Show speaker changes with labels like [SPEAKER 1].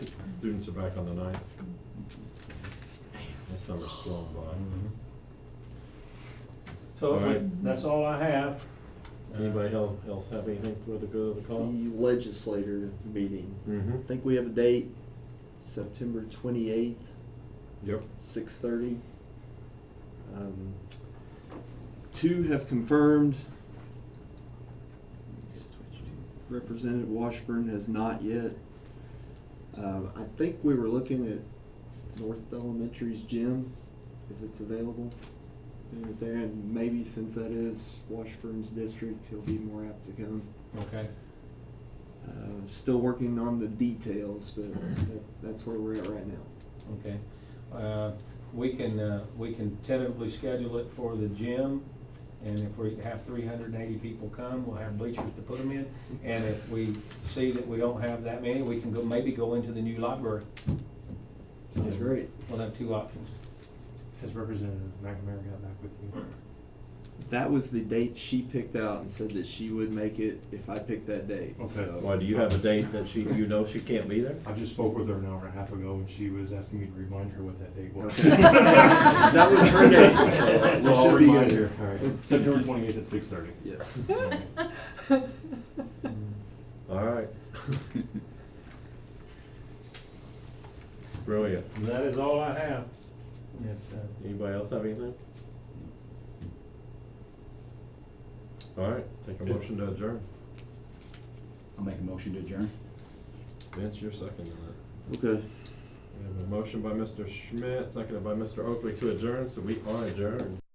[SPEAKER 1] students are back on the ninth. The summer's flown by.
[SPEAKER 2] So
[SPEAKER 1] All right.
[SPEAKER 2] but that's all I have.
[SPEAKER 1] Anybody el- else have anything for the good of the cause?
[SPEAKER 3] The legislator meeting.
[SPEAKER 1] Mm-hmm.
[SPEAKER 3] I think we have a date, September twenty-eighth,
[SPEAKER 1] Yep.
[SPEAKER 3] six thirty. Um, two have confirmed. Representative Washburn has not yet. Um, I think we were looking at North Elementary's gym, if it's available. doing it there, and maybe since that is Washburn's district, he'll be more apt to come.
[SPEAKER 4] Okay.
[SPEAKER 3] Uh, still working on the details, but that, that's where we're at right now.
[SPEAKER 4] Okay. Uh, We can, uh, we can tentatively schedule it for the gym, and if we have three hundred and eighty people come, we'll have bleachers to put them in. And if we see that we don't have that many, we can go, maybe go into the new library.
[SPEAKER 3] Sounds great.
[SPEAKER 4] We'll have two options.
[SPEAKER 5] Has Representative McNamara got back with you?
[SPEAKER 3] That was the date she picked out and said that she would make it if I picked that date.
[SPEAKER 5] Okay.
[SPEAKER 3] So-
[SPEAKER 1] Why, do you have a date that she, you know she can't be there?
[SPEAKER 5] I just spoke with her an hour and a half ago, and she was asking me to remind her what that date was.
[SPEAKER 3] Okay. That was her date, so we
[SPEAKER 5] So I'll
[SPEAKER 3] should be
[SPEAKER 5] remind
[SPEAKER 3] good.
[SPEAKER 5] her. All right. September twenty-eighth at six thirty.
[SPEAKER 3] Yes.
[SPEAKER 1] All right. Brilliant.
[SPEAKER 2] And That is all I have.
[SPEAKER 4] If, uh,
[SPEAKER 1] Anybody else have anything? All right, take a motion to adjourn.
[SPEAKER 6] I'll make a motion to adjourn.
[SPEAKER 1] Vince, you're second in that.
[SPEAKER 3] Okay.
[SPEAKER 1] We have a motion by Mr. Schmidt, seconded by Mr. Oakley to adjourn, so we are adjourned.